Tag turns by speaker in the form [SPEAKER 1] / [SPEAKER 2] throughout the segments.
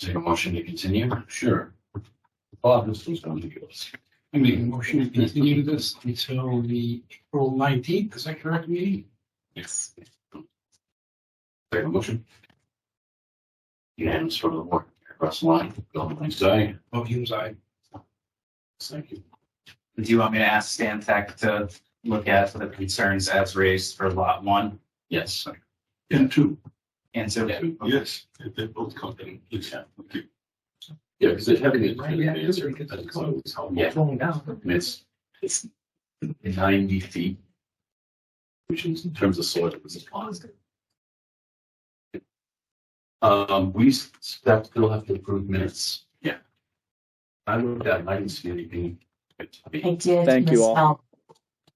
[SPEAKER 1] Is there a motion to continue?
[SPEAKER 2] Sure. Bob, this is going to give us.
[SPEAKER 3] I make a motion to continue this until the April nineteenth, is that correct, meeting?
[SPEAKER 1] Yes. Second motion. Unanimous from the board. Russ Lyon, Bill Blankstein.
[SPEAKER 2] Sorry.
[SPEAKER 3] Both Hume's eye.
[SPEAKER 2] Thank you.
[SPEAKER 4] Do you want me to ask Stan Tech to look at the concerns as raised for lot one
[SPEAKER 1] Yes.
[SPEAKER 2] And two.
[SPEAKER 4] and so?
[SPEAKER 2] Yes, they're both company. Yeah. okay.
[SPEAKER 1] Yeah, because it's having a.
[SPEAKER 3] Right, yeah, it's really good.
[SPEAKER 1] That's how it's how-
[SPEAKER 3] It's rolling down.
[SPEAKER 1] I mean, It's, it's ninety feet. Which is in terms of soil, this is positive. Um, we s- that still have to approve minutes.
[SPEAKER 2] Yeah.
[SPEAKER 1] I looked at, it, I didn't see anything.
[SPEAKER 5] I did.
[SPEAKER 6] Thank you all.
[SPEAKER 5] misspell.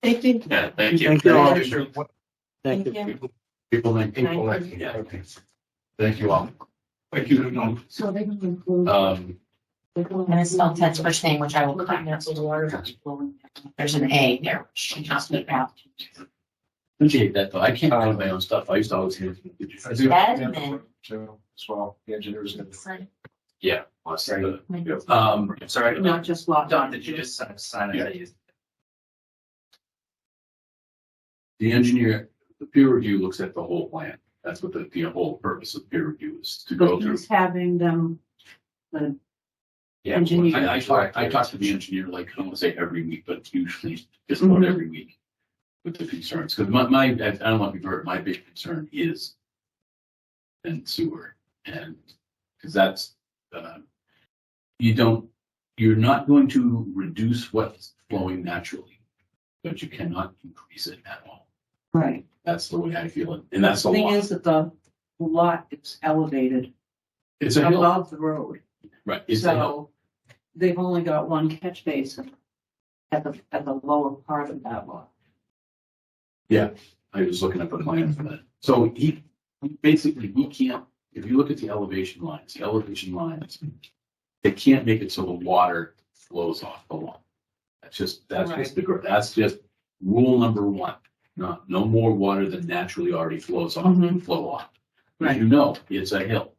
[SPEAKER 5] Thank you.
[SPEAKER 1] Yeah, thank you.
[SPEAKER 6] Thank you all.
[SPEAKER 5] Thank you.
[SPEAKER 1] People like, people like, yeah, okay. Thank you all.
[SPEAKER 2] Thank you, no,
[SPEAKER 5] So they can include.
[SPEAKER 1] Um,
[SPEAKER 5] And it's spelled Ted's first name, which I will find out. There's an A there, which she just made out.
[SPEAKER 1] appreciate that though. I can't find my own stuff. I used to always hear. from people.
[SPEAKER 5] Edmund.
[SPEAKER 3] So, as well, the engineers.
[SPEAKER 1] Yeah. lots of the-
[SPEAKER 4] Um,
[SPEAKER 1] Um,
[SPEAKER 4] sorry,
[SPEAKER 5] Not just lot.
[SPEAKER 4] Don, did you just sign- sign it?
[SPEAKER 1] the engineer, the peer review looks at the whole plan. That's what the, the whole purpose of peer review is to go
[SPEAKER 7] But
[SPEAKER 1] through.
[SPEAKER 7] he's having them, the
[SPEAKER 1] Yeah,
[SPEAKER 7] Engineer.
[SPEAKER 1] I, I talk, I talk to the engineer like, I don't want to say every week, but usually just about
[SPEAKER 7] Mhm.
[SPEAKER 1] every week. With the concerns, because my, my, I don't know if you've heard, my big concern is. And sewer and, because that's, uh. You don't, you're not going to reduce what's flowing naturally. But you cannot increase it at all.
[SPEAKER 7] Right.
[SPEAKER 1] That's the way I feel it. And that's a
[SPEAKER 7] The Thing
[SPEAKER 1] lot.
[SPEAKER 7] is that the the lot is elevated
[SPEAKER 1] It's a hill,
[SPEAKER 7] above the road,
[SPEAKER 1] right? It's a hill.
[SPEAKER 7] so they've only got one catch basin at the, at the lower part of that lot.
[SPEAKER 1] I was looking up a plan for that. So he, basically, we can't, if you look at the elevation lines, the elevation lines, they can't make it so the water flows off the lawn. That's just, that's just the, gr- that's just rule number one. Not, no more water than naturally already flows off,
[SPEAKER 7] Mhm.
[SPEAKER 1] flow off. As
[SPEAKER 7] Right.
[SPEAKER 1] you know, it's a hill.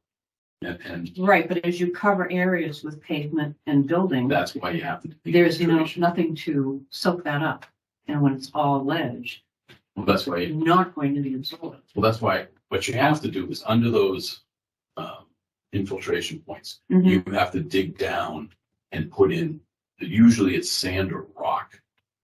[SPEAKER 1] And, and
[SPEAKER 7] Right, but as you cover areas with pavement and building,
[SPEAKER 1] that's why you have to. take
[SPEAKER 7] there's, you know,
[SPEAKER 1] consideration.
[SPEAKER 7] nothing to soak that up. And when it's all ledge,
[SPEAKER 1] Well, that's why.
[SPEAKER 7] you're not going to be absorbed.
[SPEAKER 1] Well, that's why, what you have to do is under those, um, infiltration points, you have to dig down and put in, usually it's sand or rock.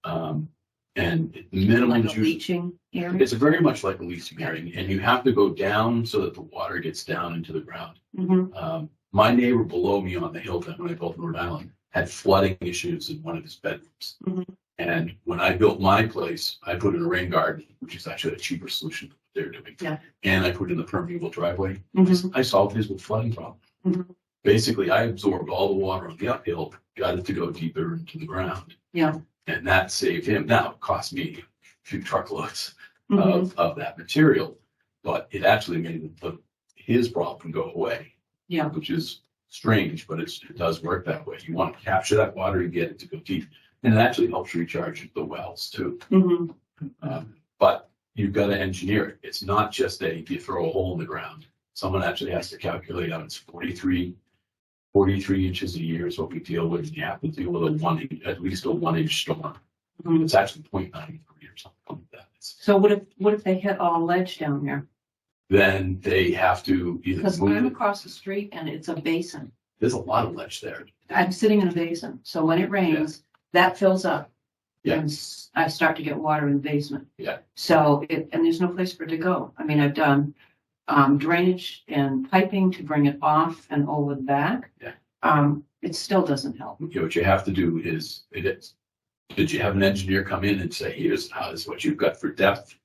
[SPEAKER 1] Um, and minimum
[SPEAKER 7] Like a
[SPEAKER 1] is usually,
[SPEAKER 7] leaching area.
[SPEAKER 1] it's very much like a leach bearing and you have to go down so that the water gets down into the ground.
[SPEAKER 7] Mhm.
[SPEAKER 1] Um, my neighbor below me on the hill that when I built in Rhode Island had flooding issues in one of his bedrooms.
[SPEAKER 7] Mhm.
[SPEAKER 1] And when I built my place, I put in a rain garden, which is actually a cheaper solution than what they're doing.
[SPEAKER 7] Yeah.
[SPEAKER 1] And I put in the permeable driveway.
[SPEAKER 7] Mhm.
[SPEAKER 1] I solved his with flooding problem.
[SPEAKER 7] Mhm.
[SPEAKER 1] Basically, I absorbed all the water on the uphill, got it to go deeper into the ground.
[SPEAKER 7] Yeah.
[SPEAKER 1] And that saved him. Now, it cost me a few truckloads
[SPEAKER 7] Mhm.
[SPEAKER 1] of, of that material, but it actually made the, his problem go away.
[SPEAKER 7] Yeah.
[SPEAKER 1] Which is strange, but it's, it does work that way. You want to capture that water and get it to go deep. And it actually helps recharge the wells too.
[SPEAKER 7] Mhm.
[SPEAKER 1] Um, But you've got to engineer it. It's not just a, you throw a hole in the ground. Someone actually has to calculate out it's 43, 43 inches a year is what we deal with. and You have to deal with a one, at least a one inch storm.
[SPEAKER 7] Mhm.
[SPEAKER 1] It's actually 0.93 or something like that. It's-
[SPEAKER 7] So what if, what if they hit all ledge down there?
[SPEAKER 1] Then they have to either
[SPEAKER 7] Because
[SPEAKER 1] move
[SPEAKER 7] I'm
[SPEAKER 1] it.
[SPEAKER 7] across the street and it's a basin.
[SPEAKER 1] There's a lot of ledge there.
[SPEAKER 7] I'm sitting in a basin, so when it rains, that fills up.
[SPEAKER 1] Yeah.
[SPEAKER 7] And s- I start to get water in the basement.
[SPEAKER 1] Yeah.
[SPEAKER 7] So it, and there's no place for it to go. I mean, I've done um, drainage and piping to bring it off and over the back.
[SPEAKER 1] Yeah.
[SPEAKER 7] Um, it still doesn't help.
[SPEAKER 1] You know, what you have to do is, it is, did you have an engineer come in and say, here's how, this is what you've got for depth?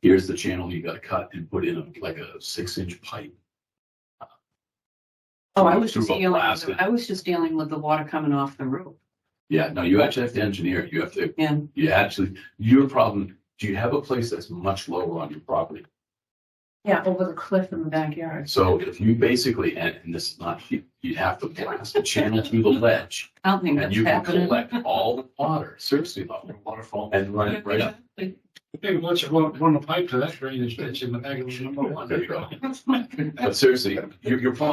[SPEAKER 1] Here's the channel you gotta cut and put in a- like a six inch pipe.
[SPEAKER 7] Oh, I was just
[SPEAKER 1] Through a
[SPEAKER 7] dealing, with
[SPEAKER 1] blasted-
[SPEAKER 7] the- I was just dealing with the water coming off the roof
[SPEAKER 1] Yeah, no, you actually have to engineer it. You have to,
[SPEAKER 7] and
[SPEAKER 1] you actually, your problem, do you have a place that's much lower on your property?
[SPEAKER 7] yeah, over the cliff in the backyard.
[SPEAKER 1] So if you basically, and and this is not, you- you'd have to blast a channel through the ledge
[SPEAKER 7] I don't think
[SPEAKER 1] and
[SPEAKER 7] that's
[SPEAKER 1] you can
[SPEAKER 7] happening.
[SPEAKER 1] collect all the water, seriously, the waterfall and run it right up.
[SPEAKER 3] Maybe let's run, run a pipe to that drainage ditch in the back of number one.
[SPEAKER 1] There you go. But seriously, your, your problem